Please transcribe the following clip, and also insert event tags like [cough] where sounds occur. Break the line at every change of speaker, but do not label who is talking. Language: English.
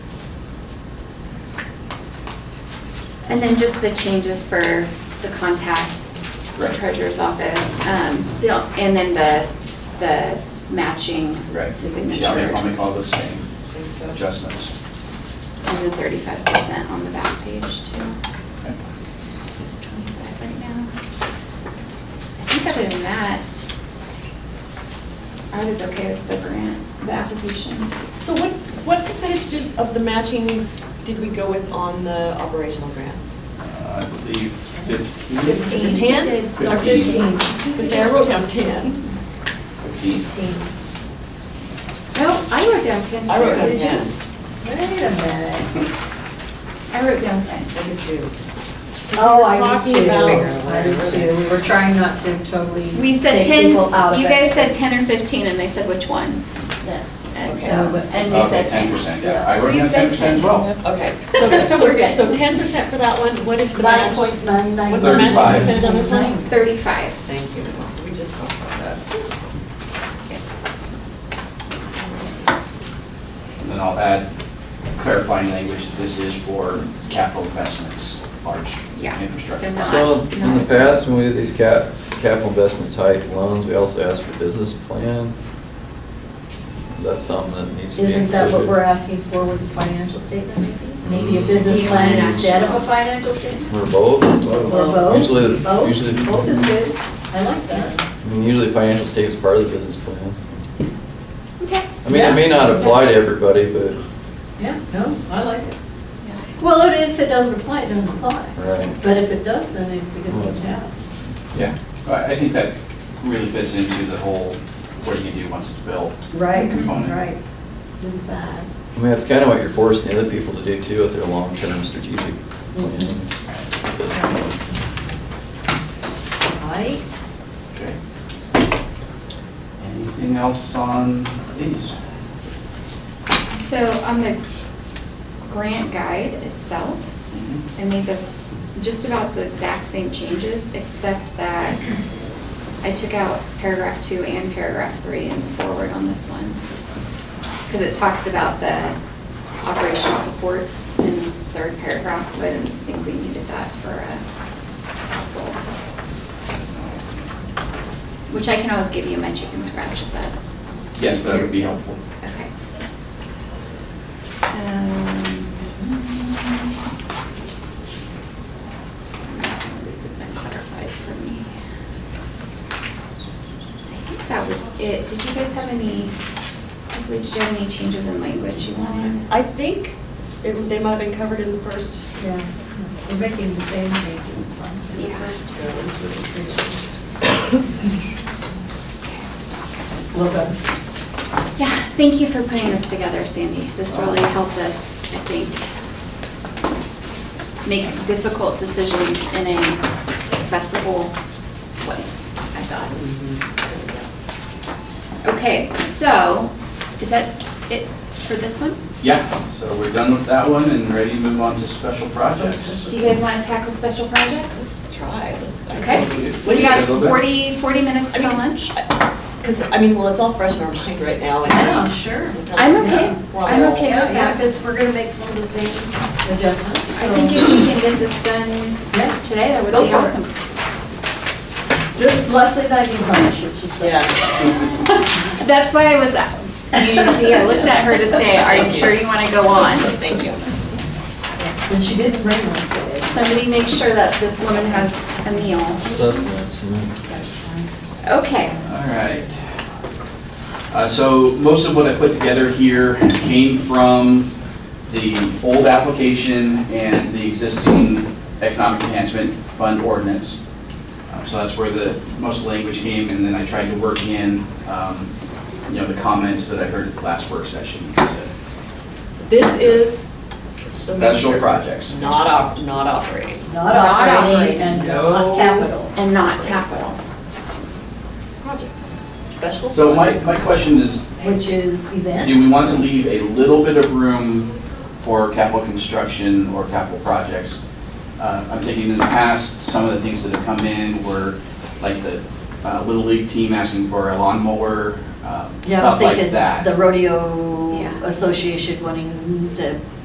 And then just the changes for the contacts, the
Right.
treasurer's office, um, the- and then the, the matching
Right.
signatures.
Yeah, I'll make- I'll make all those same
Same stuff.
adjustments.
And the thirty-five percent on the back page too.
Okay.
It's twenty-five right now. I think other than that, I was okay with the grant, the application.
So what, what percentage did, of the matching did we go with on the operational grants?
Uh, I believe
Fifteen.
15.
The tan?
Did-
No,
Fifteen.
I was gonna say, I wrote down ten.
15.
No, Oh, I wrote down ten too.
I wrote down
Did you?
ten.
Wait a minute.
I wrote down ten.
I did too. 'Cause we
Oh,
were
I
talking
do too.
about-
I do too. We were trying not to totally
We said
take
ten,
people out of it.
you guys said ten or fifteen, and they said which one? And so,
Okay.
and we
Okay,
said ten.
10%, yeah. I wrote
We
down
said
10%
10.
as well.
Okay, so,
We're good.
so ten percent for that one, what is the
Nine
match?
point nine nine.
What's the matching
Thirty-five.
percentage on this one?
Thirty-five.
Thank you, we just talked about that.
And then I'll add clarifying language, that this is for capital investments, large
Yeah.
infrastructure.
So
projects.
not-
So in the past, when we did these cap, capital investment type loans, we also asked for business plan. Is that something that needs to be
Isn't that what
included?
we're asking for with the financial statement maybe? Maybe a business
Do you want an
plan instead of a
actual?
financial statement?
Or both?
Or both?
Usually,
Both?
usually-
Both is good. I like that.
I mean, usually financial statement's part of the business plan.
Okay.
I mean, it may
Yeah.
not apply to everybody, but,
Yeah, no, I like it. Well, if- if it doesn't apply, it doesn't apply.
Right.
But if it does, then it's a good
Well,
one
it's-
to have.
Yeah, I I think that really fits into the whole, what do you do once it's built?
Right,
Component.
right. In fact.
I mean, that's kind of what you're forcing other people to do too with their long-term strategic
Mm-hmm.
planning. It's a business plan.
Right.
Okay. Anything else on these?
So on the grant guide itself,
Mm-hmm.
I made this, just about the exact same changes, except that I took out paragraph two and paragraph three and forward on this one. Because it talks about the operational supports in this third paragraph, so I didn't think we needed that for a goal. Which I can always give you my chicken scratch if that's.
Yes, that would be
easier to-
helpful.
Okay. Um, Some of these have been clarified for me. I think that was it. Did you guys have any, Leslie, did you have any changes in language you wanted?
I think it- they might have been covered in the first.
Yeah, we're making the same changes, right?
Yeah.
Well done.
Yeah, thank you for putting this together, Sandy. This really helped us, I think, make difficult decisions in an accessible way, I thought. Okay, so, is that it for this one?
Yeah, so we're done with that one and ready to move on to special projects.
Do you guys want to tackle special projects?
Try, let's. I
Okay.
think we- What
We
do you?
got
little bit.
40, 40 minutes till lunch?
Because, I mean, well, it's all fresh in our [laughs] mind right now. and-
Yeah, sure.
I'm okay.
We're on
I'm
roll.
okay with
Yeah,
that.
because we're gonna make some of the same adjustments.
I think if we can get this done
Yeah,
today, that would
Go
be
for it.
awesome.
Just Leslie, that you punish, it's just. like-
Yes.
That's why I was, you see, I looked at her to say, are you sure you want to go on?
Thank you.
And she didn't bring one today.
Somebody make sure that this woman has a meal.
Sustenance, you know.
Okay,
All right. Uh, So most of what I put together here came from the old application and the existing economic enhancement fund ordinance. Uh, So that's where the, most of the language came, and then I tried to work in, um, you know, the comments that I heard at the last work session.
So this is. so make
Special
sure-
projects.
Not op, not operating.
Not
Not
operating
operating.
and
No.
not capital.
and not capital.
Projects. Special projects.
So my, my question is,
Which is events.
Do we want to leave a little bit of room for capital construction or capital projects? Uh, I'm thinking in the past, some of the things that have come in were like the uh, Little League team asking for a lawnmower, um,
Yeah, I was
stuff like
thinking the
that.
rodeo
Yeah.
association wanting to